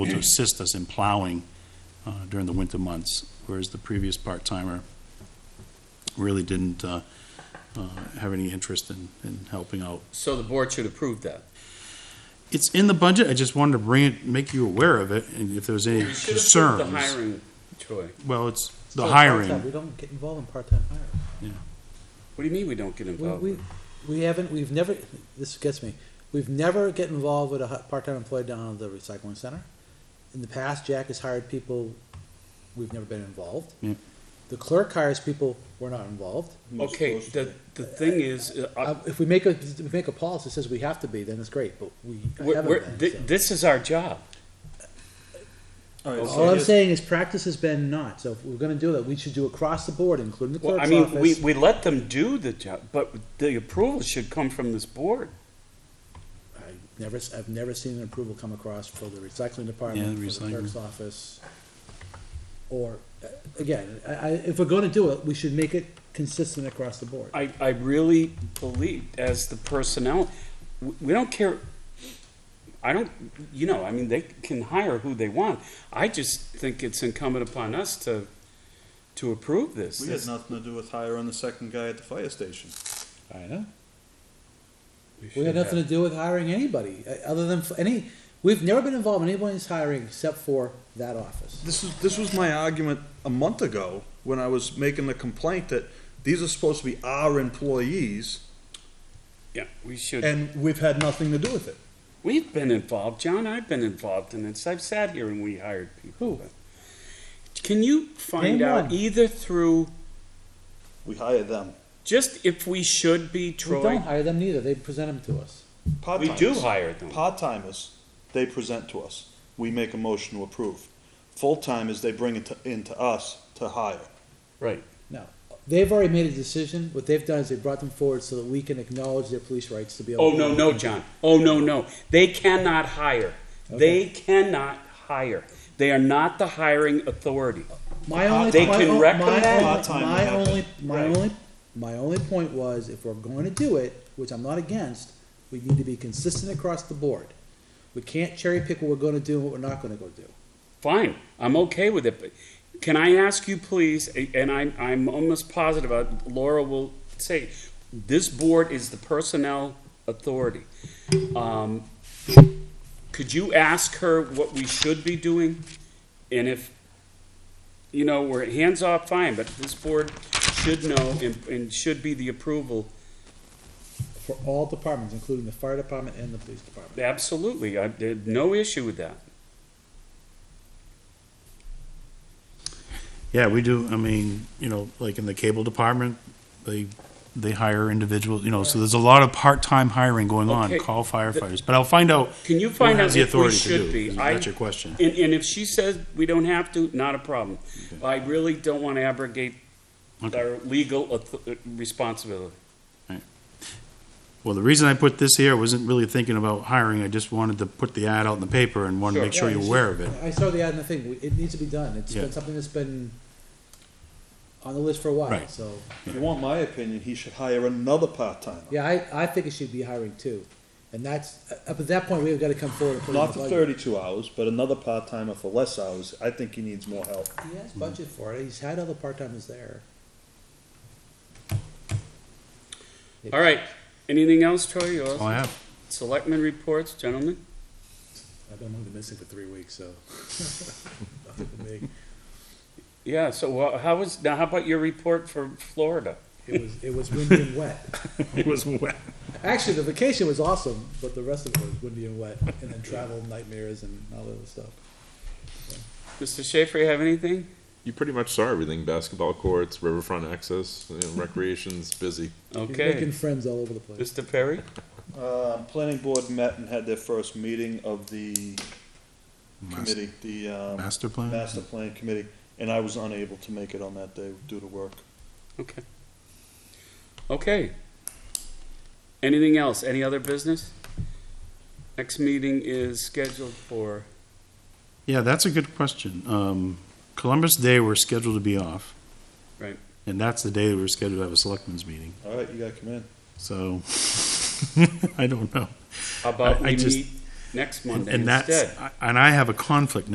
to assist us in plowing uh, during the winter months, whereas the previous part-timer really didn't uh, uh, have any interest in, in helping out. So the board should approve that. It's in the budget, I just wanted to bring it, make you aware of it, and if there's any You should approve the concerns. hiring, Troy. Well, it's the Still Oh, part-time. hiring, We don't get involved in part-time hiring. What do you mean we don't get involved? We, we, we haven't, we've never, this gets me, we've never get involved with a hu- part-time employee down at the recycling center. In the past, Jack has hired people, we've never been involved. Yeah. The clerk hires people, we're not involved. Okay, the, the thing is, uh, Uh, if we make a, if we make a policy that says we have to be, then it's great, but we we're, haven't we're, been, thi- so. this is our job. All I'm saying is practice has been not, so if we're gonna do that, we should do across the board, including the Well, I clerk's mean, we, office. we let them do the job, but the approval should come from this board. I Never, s- I've never seen an approval come across for the recycling Yeah, department, the for the recycling. clerk's office. Or, uh, again, I, I, if we're gonna do it, we should make it consistent across the board. I, I really believe as the personnel, w- we don't care. I don't, you know, I mean, they can hire who they want. I just think it's incumbent upon us to, to approve this. We had nothing to do with hiring the second guy at the fire station. I know. We had nothing to do with hiring anybody, uh, other than f- any, we've never been involved in anybody's hiring except for that office. This is, this was my argument a month ago when I was making the complaint that these are supposed to be our employees Yeah, we should. and we've had nothing to do with it. We've been involved, John, I've been involved in this, I've sat here and we hired people. Can you find Name out one. either through, We hired them. just if we should be, We don't Troy? hire them neither, they present them to us. We do hire them. Part-timers, they present to us. We make a motion to approve. Full-timers, they bring it to, into us to hire. Right. No. They've already made a decision. What they've done is they brought them forward so that we can acknowledge their police rights to be able Oh, to. no, no, John, oh, no, no, they cannot hire, they cannot hire. They are not the hiring authority. My only, They my can o- my recommend- only- Part-time My happen. only, my Right. only, my only point was if we're going to do it, which I'm not against, we need to be consistent across the board. We can't cherry pick what we're gonna do and what we're not gonna go do. Fine, I'm okay with it, but can I ask you please, a- and I'm, I'm almost positive, uh, Laura will say, this board is the personnel authority. Um, Could you ask her what we should be doing? And if, you know, we're hands off, fine, but this board should know and, and should be the approval. For all departments, including the fire department and the police department. Absolutely, I, there's no issue with that. yeah, we do, I mean, you know, like in the cable department, they, they hire individuals, you know, so there's a lot of part-time hiring going on, Okay. call firefighters, but I'll find out Can you who find has out the if we authority to do. should be? 'cause I- That's your question. And, and if she says we don't have to, not a problem. I really don't want to abrogate Okay. our legal auth- uh, responsibility. Well, the reason I put this here, I wasn't really thinking about hiring, I just wanted to put the ad out in the paper and wanted to Sure. make sure Yeah, you're it's aware of just- it. I saw the ad and the thing, We- it needs to be done. It's Yeah. been something that's been on the list for a while, Right. so. If you want my opinion, he should hire another part-timer. Yeah, I, I think it should be hiring two. And that's, up at that point, we've gotta come forward and put it in the Not for budget. thirty-two hours, but another part-timer for less hours. I think he needs more help. He has budget for it, he's had other part-timers there. All right, anything else, Troy? You That's all I all- have. Selectmen reports, gentlemen? I've been only missing for three weeks, so. Nothing for me. Yeah, so wha- how was, now how about your report for Florida? It was, it was windy and wet. It was wet. Actually, the vacation was awesome, but the rest of it was windy and wet, and then travel nightmares and all that other stuff. Mr. Schaefer, you have anything? you pretty much saw everything basketball courts, riverfront access, you know, recreation's busy. He's Making Okay. friends all over the place. Mr. Perry? Uh, planning board met and had their first meeting of the committee, the, um, Master plan? master plan committee, and I was unable to make it on that day due to work. Okay. Okay. Anything else? Any other business? Next meeting is scheduled for, Yeah, that's a good question. Um, Columbus Day, we're scheduled to be off. Right. And that's the day that we're scheduled to have a selectmen's meeting, All right, you gotta come in. so I don't know. how about I- I we just- meet next Monday And that's, instead. and I have a conflict